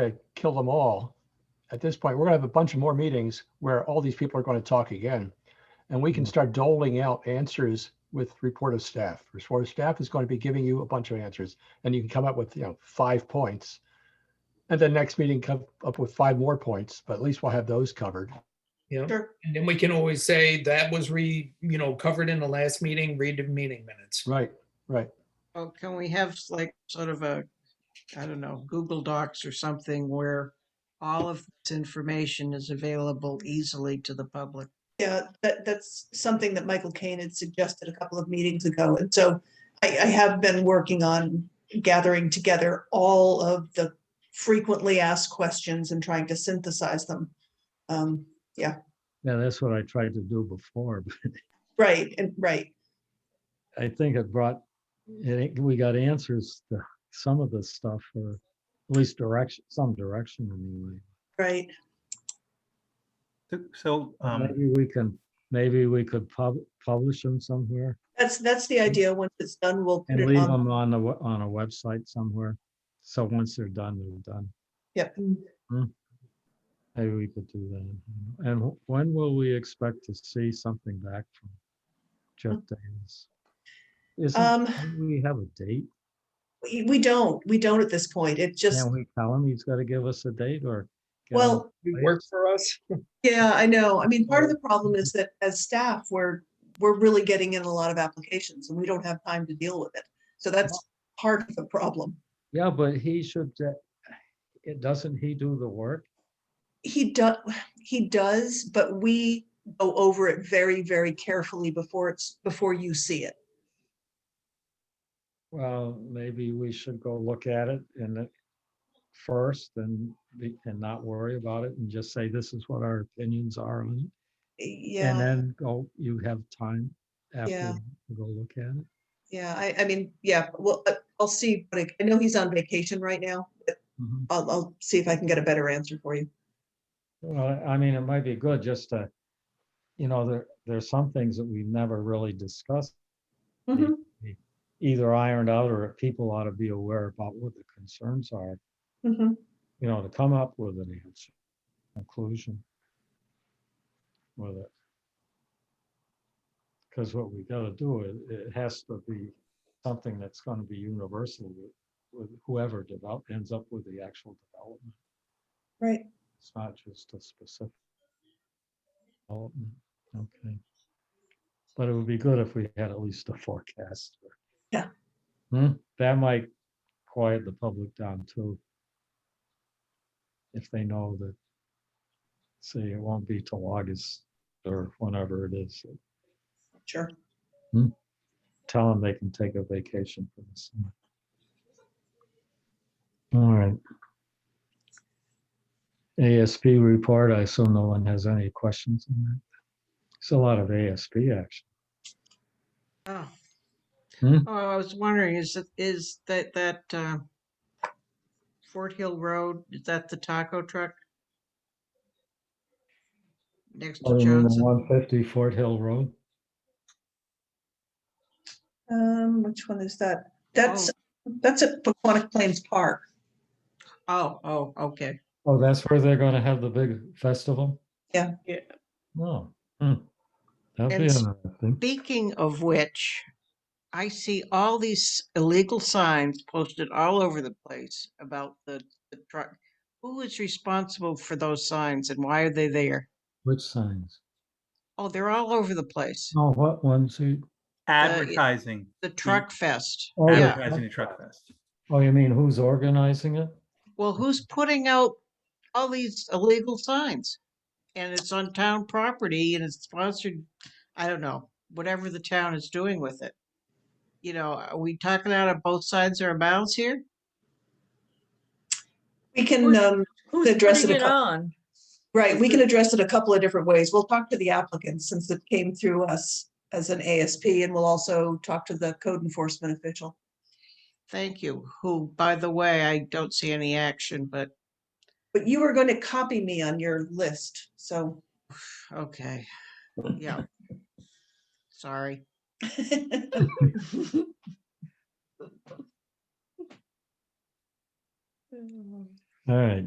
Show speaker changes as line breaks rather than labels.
to kill them all. At this point, we're gonna have a bunch of more meetings where all these people are going to talk again. And we can start doling out answers with report of staff. Report of staff is going to be giving you a bunch of answers and you can come up with, you know, five points. And then next meeting come up with five more points, but at least we'll have those covered.
Yeah,
Sure.
and then we can always say that was re, you know, covered in the last meeting, read the meeting minutes.
Right, right.
Well, Oh, can we have like sort of a, I don't know, Google Docs or something where all of this information is available easily to the public?
Yeah, that, that's something that Michael Kane had suggested a couple of meetings ago. And so I, I have been working on gathering together all of the frequently asked questions and trying to synthesize them. Um,
Yeah, that's what I tried to do before, but
right, and right,
I think it brought, I think we got answers to some of this stuff or at least direction, some direction anyway.
right.
So- So, um,
Maybe we can, maybe we could pub, publish them somewhere
That's, that's the idea. Once it's done, we'll put
and
it
leave
on.
them on the, we- on a website somewhere. So once they're done, they're done.
Yep.
Maybe we could do that. And wh- when will we expect to see something back from Jeff Davis? Isn't,
Um,
don't we have a date?
we, we don't, we don't at this point. It just,
Can we tell him he's got to give us a date or? get on
well,
You work for us?
Yeah, I know. I mean, part of the problem is that as staff, we're, we're really getting in a lot of applications and we don't have time to deal with it. So that's part of the problem.
Yeah, but he should, uh, it, doesn't he do the work?
He does, he does, but we go over it very, very carefully before it's, before you see it.
Well, maybe we should go look at it and it first and, be- and not worry about it and just say, this is what our opinions are. on it," And
Yeah,
then go, you have time
Yeah.
after, to go look at it.
yeah, I, I mean, yeah, well, uh, I'll see, but I- I know he's on vacation right now. but
Mhm.
I'll, I'll see if I can get a better answer for you.
Well, I mean, it might be good just to, you know, there, there's some things that we've never really discussed,
Mhm,
either ironed out or people ought to be aware about what the concerns are.
mhm.
you know, to come up with an answer, conclusion with it. Because what we gotta do, it, it has to be something that's gonna be universal with, with whoever develop, ends up with the actual development.
Right.
It's not just a specific development, okay. But it would be good if we had at least a forecast. or-
Yeah.
Hmm, that might quiet the public down too if they know that, say, it won't be till August or whenever it is,
Sure.
tell them they can take a vacation for the summer. All right. ASP report, I assume no one has any questions on that. It's a lot of ASP action.
Oh.
Hmm?
Oh, I was wondering, is it, is that, that, uh, Fort Hill Road, is that the taco truck? Next to
Other than the
Johnson? Oh,
one fifty Fort Hill Road,
Um, which one is that?
Oh.
That's, that's at Paquonic Plains Park.
Oh, oh, okay.
oh, that's where they're gonna have the big festival?
Yeah.
Yeah.
Oh. hmm. That'd be
And s-
interesting.
Speaking of which, I see all these illegal signs posted all over the place about the, the truck. Who is responsible for those signs and why are they there?
Which signs?
Oh, they're all over the place.
Oh, what ones? you-
advertising,
The Truck Fest.
Oh,
Yeah.
yeah.
advertising the truck fest.
Oh, you mean who's organizing it?
Well, who's putting out all these illegal signs? And it's on town property and it's sponsored, I don't know, whatever the town is doing with it. You know, are we talking out of both sides of our mouths here?
We can,
Who's-
um,
Who's
address
putting
it
it
aco-
on?
right, we can address it a couple of different ways. We'll talk to the applicant since it came through us as an ASP and we'll also talk to the code enforcement official.
Thank you. Who, by the way, I don't see any action, but
But you were going to copy me on your list, so.
okay. Yeah. Sorry.
All right,